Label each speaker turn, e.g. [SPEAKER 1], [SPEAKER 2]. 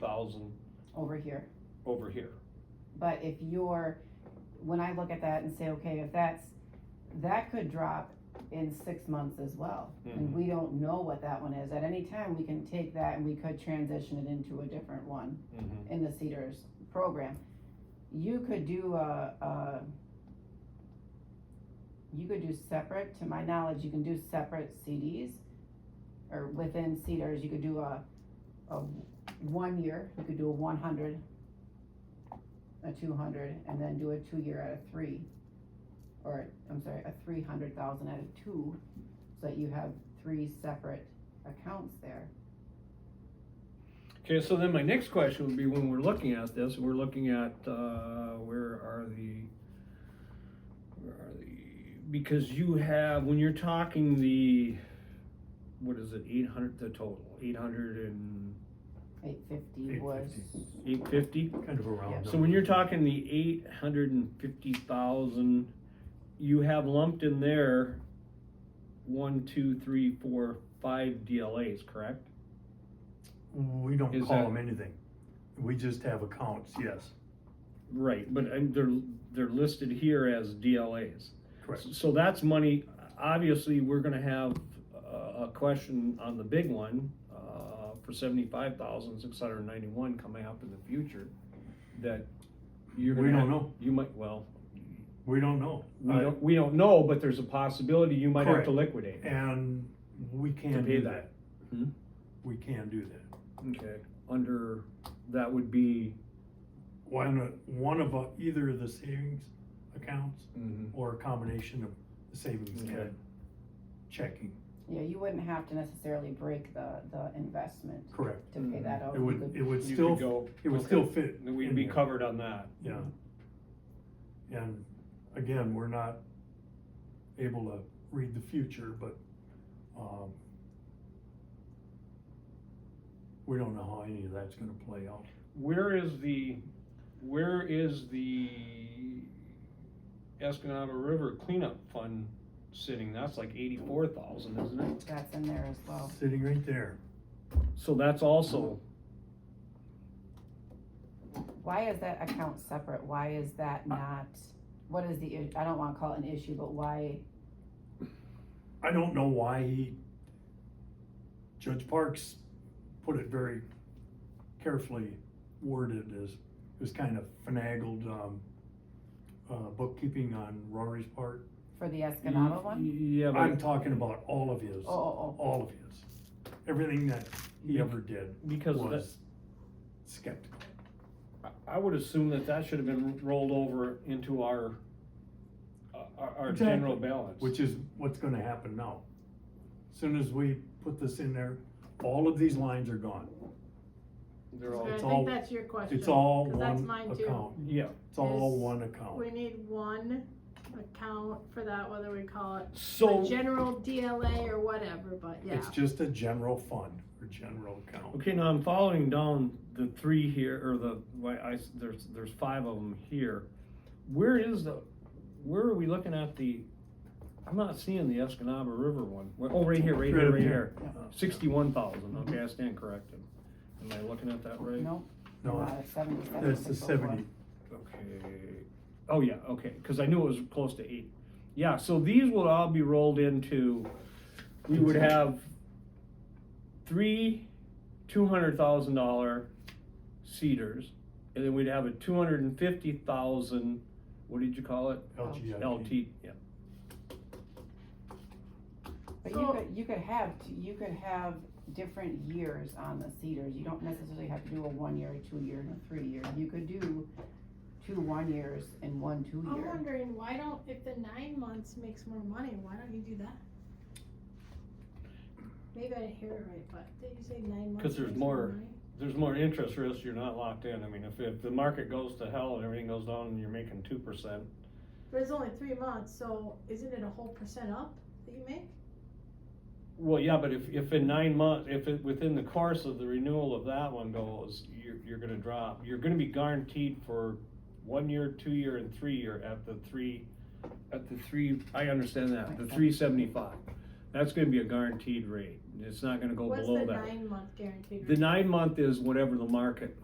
[SPEAKER 1] thousand
[SPEAKER 2] over here.
[SPEAKER 1] over here.
[SPEAKER 2] But if you're, when I look at that and say, okay, if that's, that could drop in six months as well.
[SPEAKER 3] Mm-hmm.
[SPEAKER 2] And we don't know what that one is. At any time, we can take that and we could transition it into a different one
[SPEAKER 1] Mhm.
[SPEAKER 2] in the Cedars program. You could do a, a, you could do separate, to my knowledge, you can do separate CDs. Or within Cedars, you could do a, a one year, you could do a one hundred, a two hundred, and then do a two year at a three. Or, I'm sorry, a three hundred thousand at a two, so that you have three separate accounts there.
[SPEAKER 3] Okay, so then my next question would be when we're looking at this, we're looking at, uh, where are the, where are the, because you have, when you're talking the, what is it, eight hundred, the total, eight hundred and
[SPEAKER 2] Eight fifty was,
[SPEAKER 4] 850.
[SPEAKER 3] eight fifty?
[SPEAKER 4] Kind of a round
[SPEAKER 2] Yeah.
[SPEAKER 4] number.
[SPEAKER 3] So when you're talking the eight hundred and fifty thousand, you have lumped in there one, two, three, four, five DLAs, correct?
[SPEAKER 4] We don't
[SPEAKER 3] Is
[SPEAKER 4] call
[SPEAKER 3] that-
[SPEAKER 4] them anything. We just have accounts, yes,
[SPEAKER 3] Right, but um, they're, they're listed here as DLAs.
[SPEAKER 4] correct.
[SPEAKER 3] So that's money, obviously, we're gonna have a, a question on the big one, uh, for seventy-five thousand, six hundred and ninety-one coming up in the future, that you're gonna.
[SPEAKER 4] We don't
[SPEAKER 3] have-
[SPEAKER 4] know.
[SPEAKER 3] You might, well,
[SPEAKER 4] We don't know.
[SPEAKER 3] we
[SPEAKER 4] Uh,
[SPEAKER 3] don't, we don't know, but there's a possibility you might have
[SPEAKER 4] Correct.
[SPEAKER 3] to liquidate.
[SPEAKER 4] And we
[SPEAKER 3] To
[SPEAKER 4] can
[SPEAKER 3] pay
[SPEAKER 4] do
[SPEAKER 3] that.
[SPEAKER 4] that.
[SPEAKER 3] Hmm?
[SPEAKER 4] We can do that.
[SPEAKER 3] Okay, under, that would be,
[SPEAKER 4] Why not, one of, uh, either of the savings accounts
[SPEAKER 3] Mm-hmm.
[SPEAKER 4] or a combination of the savings
[SPEAKER 3] Okay.
[SPEAKER 4] and checking,
[SPEAKER 2] yeah, you wouldn't have to necessarily break the, the investment.
[SPEAKER 4] correct.
[SPEAKER 2] to pay that out.
[SPEAKER 4] Mm-hmm. It would, it would
[SPEAKER 3] You could
[SPEAKER 4] still,
[SPEAKER 3] go-
[SPEAKER 4] it would
[SPEAKER 3] okay.
[SPEAKER 4] still fit.
[SPEAKER 3] Then We'd
[SPEAKER 4] in
[SPEAKER 3] be
[SPEAKER 4] there.
[SPEAKER 3] covered on that.
[SPEAKER 4] Yeah. And again, we're not able to read the future, but, um, we don't know how any of that's gonna play out.
[SPEAKER 3] Where is the, where is the Escanaba River cleanup fund sitting? That's like eighty-four thousand, isn't it?
[SPEAKER 2] That's in there as well.
[SPEAKER 4] Sitting right there.
[SPEAKER 3] So that's also,
[SPEAKER 2] Why is that account separate? Why is that
[SPEAKER 4] Uh,
[SPEAKER 2] not, what is the, i- I don't wanna call it an issue, but why,
[SPEAKER 4] I don't know why he, Judge Parks put it very carefully worded as, it was kind of finagled, um, uh, bookkeeping on Rory's part.
[SPEAKER 2] for the Escanaba one?
[SPEAKER 3] yeah,
[SPEAKER 4] I'm
[SPEAKER 3] but
[SPEAKER 4] talking about all of his.
[SPEAKER 2] Oh, oh, oh,
[SPEAKER 4] all of his. Everything that he ever did
[SPEAKER 3] because that,
[SPEAKER 4] was skeptical.
[SPEAKER 3] I- I would assume that that should have been rolled over into our, uh, our, our
[SPEAKER 4] Exactly.
[SPEAKER 3] general balance.
[SPEAKER 4] Which is what's gonna happen now. Soon as we put this in there, all of these lines are gone.
[SPEAKER 3] They're all,
[SPEAKER 5] I
[SPEAKER 4] it's all-
[SPEAKER 5] think that's your question.
[SPEAKER 4] It's all
[SPEAKER 5] 'cause that's
[SPEAKER 4] one
[SPEAKER 5] mine too.
[SPEAKER 4] account.
[SPEAKER 3] yeah,
[SPEAKER 4] It's all
[SPEAKER 5] Is-
[SPEAKER 4] one account.
[SPEAKER 5] We need one account for that, whether we call it
[SPEAKER 3] so.
[SPEAKER 5] the general DLA or whatever, but yeah.
[SPEAKER 4] It's just a general fund or general account.
[SPEAKER 3] Okay, now I'm following down the three here, or the, why I, there's, there's five of them here. Where is the, where are we looking at the, I'm not seeing the Escanaba River one. Well, Oh, right here, right here,
[SPEAKER 4] up
[SPEAKER 3] right here.
[SPEAKER 4] Yeah.
[SPEAKER 3] Sixty-one thousand, okay, I stand corrected. Am I looking at that right?
[SPEAKER 2] no,
[SPEAKER 4] No,
[SPEAKER 2] uh, seventy-seven.
[SPEAKER 4] that's the
[SPEAKER 2] 604.
[SPEAKER 4] seventy.
[SPEAKER 3] Okay, oh yeah, okay, cause I knew it was close to eight. Yeah, so these will all be rolled into, we would have three two hundred thousand dollar cedars, and then we'd have a two hundred and fifty thousand, what did you call it?
[SPEAKER 4] LGIP.
[SPEAKER 3] LT, yeah,
[SPEAKER 2] But you
[SPEAKER 5] So-
[SPEAKER 2] could, you could have, t- you could have different years on the Cedars. You don't necessarily have to do a one year, a two year, and a three year. You could do two one years and one two
[SPEAKER 5] I'm
[SPEAKER 2] year.
[SPEAKER 5] wondering, why don't, if the nine months makes more money, why don't you do that? Maybe I didn't hear it right, but did you say nine months?
[SPEAKER 3] Because there's
[SPEAKER 5] makes more
[SPEAKER 3] more-
[SPEAKER 5] money?
[SPEAKER 3] there's more interest risk, you're not locked in, I mean, if, if the market goes to hell and everything goes down and you're making two percent,
[SPEAKER 5] But it's only three months, so isn't it a whole percent up that you make?
[SPEAKER 3] Well, yeah, but if, if in nine months, if it, within the course of the renewal of that one goes, you're, you're gonna drop, you're gonna be guaranteed for one year, two year, and three year at the three, at the three, I understand that, the three seventy-five. That's gonna be a guaranteed rate, it's not gonna go
[SPEAKER 5] What's
[SPEAKER 3] below
[SPEAKER 5] the
[SPEAKER 3] that.
[SPEAKER 5] nine month guaranteed?
[SPEAKER 3] The
[SPEAKER 5] rate?
[SPEAKER 3] nine month is whatever the market